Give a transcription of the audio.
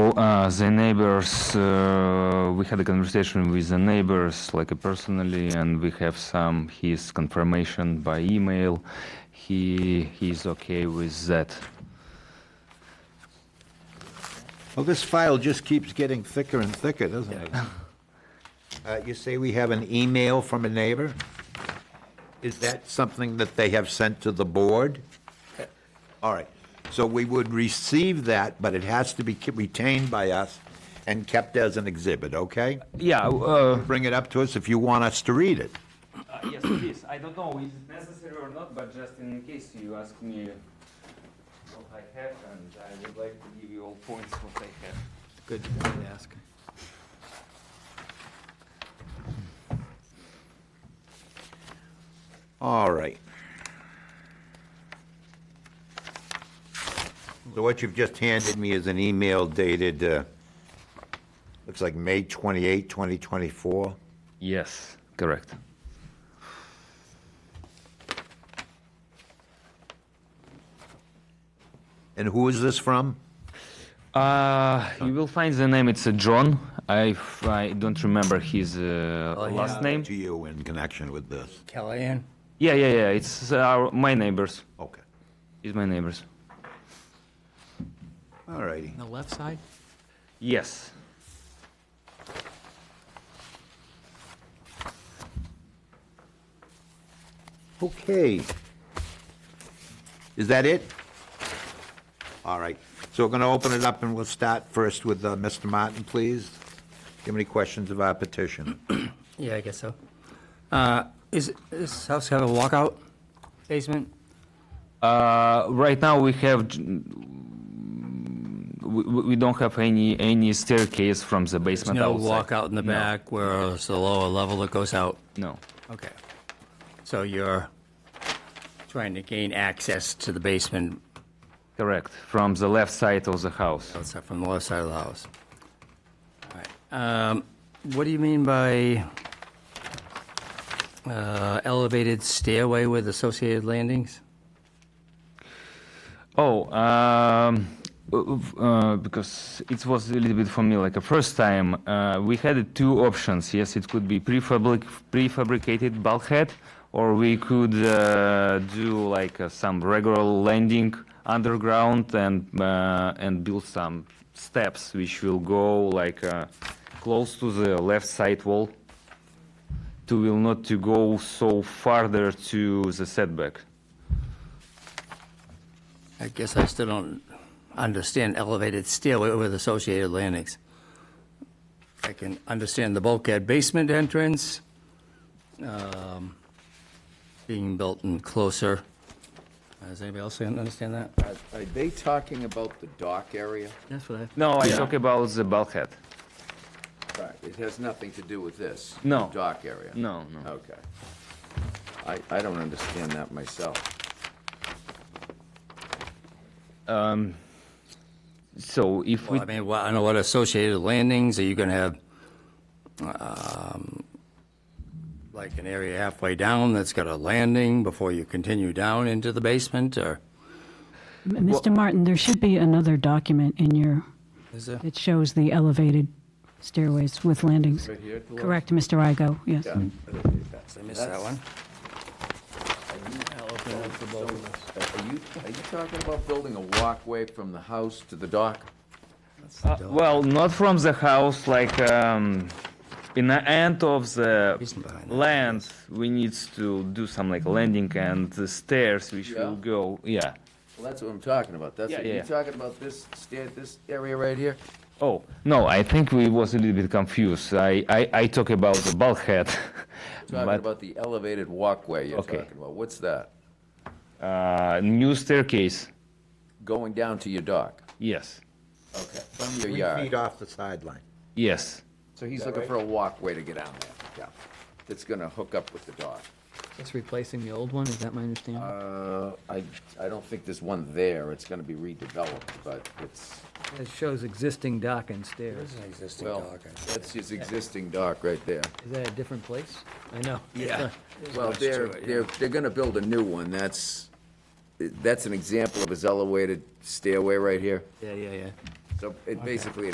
So uh, the neighbors, uh, we had a conversation with the neighbors, like uh, personally, and we have some his confirmation by email. He he's okay with that. Well, this file just keeps getting thicker and thicker, doesn't it? Uh, You say we have an email from a neighbor? Is that something that they have sent to the board? All right, so we would receive that, but it has to be ke- retained by us and kept as an exhibit, okay? Yeah. Uh, Bring it up to us if you want us to read it. yes, please. I don't know is it necessary or not, but just in case you ask me what I have, and I would like to give you all points what I have. Good, you didn't ask. All right. So what you've just handed me is an email dated, uh, looks like May 28, 2024. Yes, correct. And who is this from? Uh, you will find the name. It's uh, John. I, f- I don't remember his uh, Oh, last name. To you in connection with this. Kellyanne? Yeah, yeah, yeah. It's uh, our, my neighbors. Okay. It's my neighbors. All righty. The left side? Yes. Okay. Is that it? All right. So we're going to open it up and we'll start first with uh, Mr. Martin, please. Do you have any questions of our petition? Yeah, I guess so. Uh, Is, does this house have a walkout basement? Uh, right now we have. j- We, we we don't have any any staircase from the basement No outside. walkout in the No. back where it's the lower level that goes out? No. Okay. So you're trying to gain access to the basement Correct. From the left side of the house. outside from the left side of the house? All right. Um, What do you mean by uh, elevated stairway with associated landings? Oh, um, uh, because it was a little bit for me like a first time. Uh, we had two options. Yes, it could be prefabric- prefabricated bulkhead, or we could uh, do like uh, some regular landing underground and uh, and build some steps which will go like uh, close to the left side wall to will not to go so farther to the setback. I guess I still don't understand elevated stairway with associated landings. I can understand the bulkhead basement entrance um, being built in closer. Does anybody else understand that? Are are they talking about the dock area? That's what I. No, I talk about the bulkhead. It has nothing to do with this? No. the Dock area? No, no. Okay. I, I don't understand that myself. So if we Well, I mean, well, I don't know what associated landings, are you gonna have, um, like an area halfway down that's got a landing before you continue down into the basement, or? M- Mr. Martin, there should be another document in your, Is there? that shows the elevated stairways with landings. Right here at the left? Correct, Mr. Igo, yes. Yeah. I missed that one. Are you, are you talking about building a walkway from the house to the dock? Uh, Well, not from the house, like, um, in the end of the Reason behind that, I land, we need to do some like landing and the stairs which will Yeah. go, yeah. Well, that's what I'm talking about. That's, Yeah, what yeah, you're yeah. talking about this stair, this area right here? Oh, no, I think we was a little bit confused. I, I, I talk about the bulkhead. Talking but, about the elevated walkway you're Okay. talking about. What's that? Uh, new staircase, Going down to your dock? yes, Okay. From your Three yard? feet off the sideline. yes, So he's looking for a walkway to get down there. Yeah. That's gonna hook up with the dock. It's replacing the old one, is that my understanding? Uh, I, I don't think there's one there. It's gonna be redeveloped, but it's, It shows existing dock and stairs. Existing well, dock, I- that's his existing dock right there. Is that a different place? I know. Yeah. Well, they're, they're, they're gonna build a new one. That's, that's an example of his elevated stairway right here. Yeah, yeah, yeah. So it basically, it